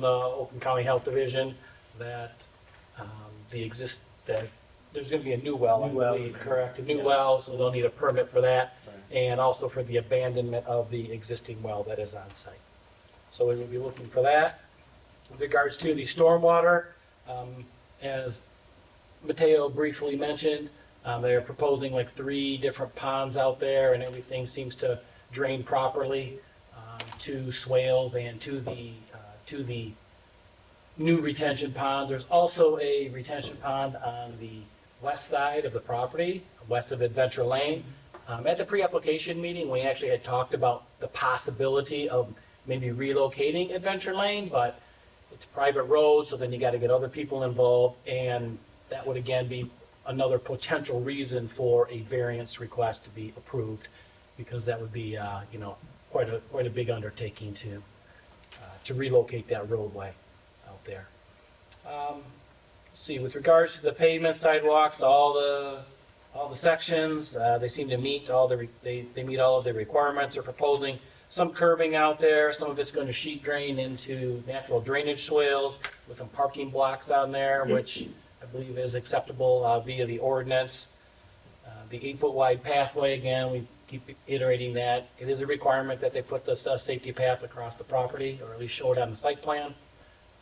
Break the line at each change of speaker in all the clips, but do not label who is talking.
the Oakland County Health Division that um, the exist, that there's going to be a new well, I
New well.
believe, correct? A new
Yes.
well, so they'll need a permit for that, and also for the abandonment of the existing well that is on site. So we will be looking for that. With regards to the stormwater, um, as Mateo briefly mentioned, um, they're proposing like three different ponds out there, and everything seems to drain properly um, to swales and to the, uh, to the new retention ponds. There's also a retention pond on the west side of the property, west of Adventure Lane. Um, At the pre-application meeting, we actually had talked about the possibility of maybe relocating Adventure Lane, but it's a private road, so then you got to get other people involved, and that would again be another potential reason for a variance request to be approved, because that would be, uh, you know, quite a, quite a big undertaking to, uh, to relocate that roadway out there. Um, See, with regards to the pavement sidewalks, all the, all the sections, uh, they seem to meet all the, re- they, they meet all of the requirements. They're proposing some curbing out there, some of it's going to sheet drain into natural drainage swales with some parking blocks on there, which I believe is acceptable uh, via the ordinance. Uh, The eight-foot wide pathway, again, we keep iterating that. It is a requirement that they put this uh, safety path across the property, or at least show it on the site plan.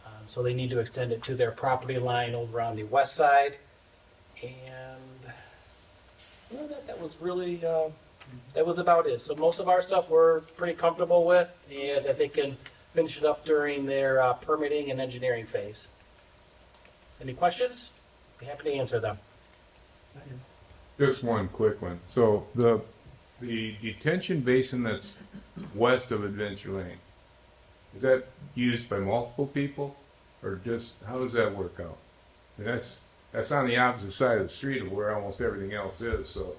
Um, So they need to extend it to their property line over on the west side. And, well, that, that was really, uh, that was about it. So most of our stuff we're pretty comfortable with, and that they can finish it up during their uh, permitting and engineering phase. Any questions? Be happy to answer them.
Just one quick one. So the, the detention basin that's west of Adventure Lane, is that used by multiple people? Or just, how does that work out? And that's, that's on the opposite side of the street of where almost everything else is, so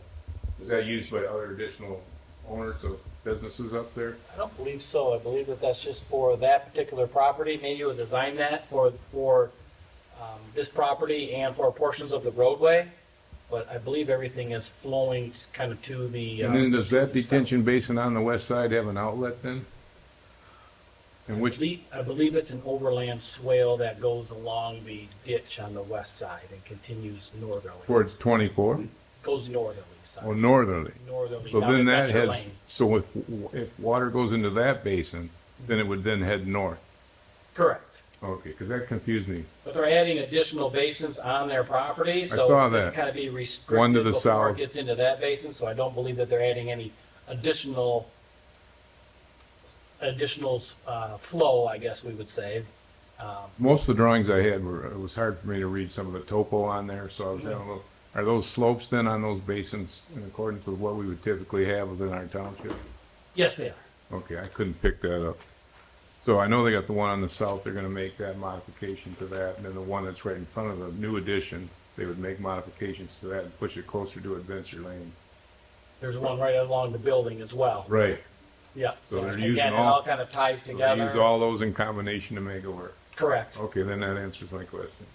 is that used by other additional owners of businesses up there?
I don't believe so. I believe that that's just for that particular property. Maybe it was designed that for, for um, this property and for portions of the roadway. But I believe everything is flowing kind of to the. uh,
And then does that
the south.
detention basin on the west side have an outlet then? And
I
which,
believe- I believe it's an overland swale that goes along the ditch on the west side and continues northerly.
towards twenty-four
Goes northerly,
or
sorry.
northerly?
Northerly.
So
down
then that
Adventure
has,
Lane.
so if, if water goes into that basin, then it would then head north.
Correct.
Okay, because that confused me.
But they're adding additional basins on their property, so.
saw that.
Kind of be restricted.
One to the
Before it
south.
gets into that basin, so I don't believe that they're adding any additional, additional, uh, flow, I guess we would say. Um,
Most of the drawings I had were, it was hard for me to read some of the topo on there, so I was having a little, are those slopes then on those basins in accordance with what we would typically have within our township?
Yes, they are.
Okay, I couldn't pick that up. So I know they got the one on the south, they're gonna make that modification to that, and then the one that's right in front of the new addition, they would make modifications to that and push it closer to Adventure Lane.
There's one right along the building as well.
Right.
Yeah.
So they're using
Again, it
all-
all kind of ties
So they use
together.
all those in combination to make it work.
Correct.
Okay, then that answers my question.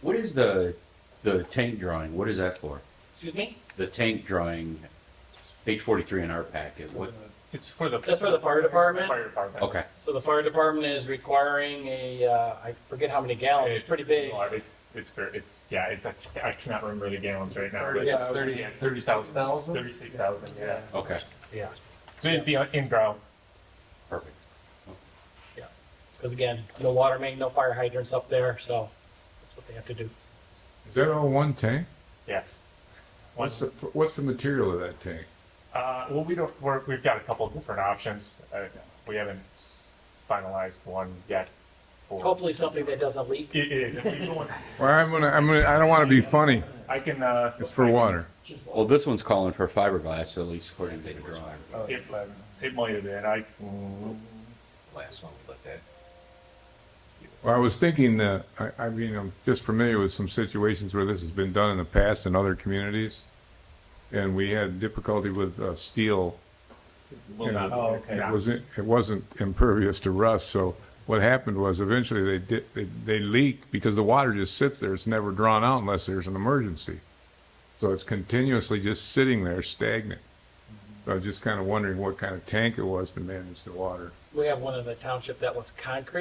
What is the the tank drawing? What is that for?
Excuse me?
The tank drawing, page forty three in our packet. What?
It's for the.
That's for the fire department?
Fire department.
Okay.
So the fire department is requiring a, uh, I forget how many gallons, Oh, it's pretty big.
large. It's, it's, ver- it's, yeah, it's, I can't- I cannot remember the gallons right now. but
Yeah,
it's
Thirty,
uh, yeah,
thirty thousand?
Thirty-six thousand, yeah.
Okay.
Yeah.
So it'd be on- in ground.
Perfect.
Because again, no water main, no fire hydrants up there, so that's what they have to do.
Is that all one tank?
Yes.
What's
Once,
the, what's the material of that tank?
uh, well, we don't, we're, we've got a couple of different options. Uh, we haven't s- finalized one yet. for-
Hopefully something that doesn't leak.
It is. If we go in-
Well, I'm gonna, I'm gonna, I don't want to be funny.
I can, uh.
It's for water.
Well, this one's calling for fiberglass, at least according to the drawing.
It, it might have been. I, mm, can-
Last one we looked at.
Well, I was thinking that, I, I mean, I'm just familiar with some situations where this has been done in the past in other communities. And we had difficulty with, uh, steel.
will not.
Oh,
it's
It
not-
wasn't, it wasn't impervious to rust, so what happened was eventually they did, they, they leak because the water just sits there. It's never drawn out unless there's an emergency. So it's continuously just sitting there stagnant. So I was just kind of wondering what kind of tank it was to manage the water.
We have one in the township that was concrete.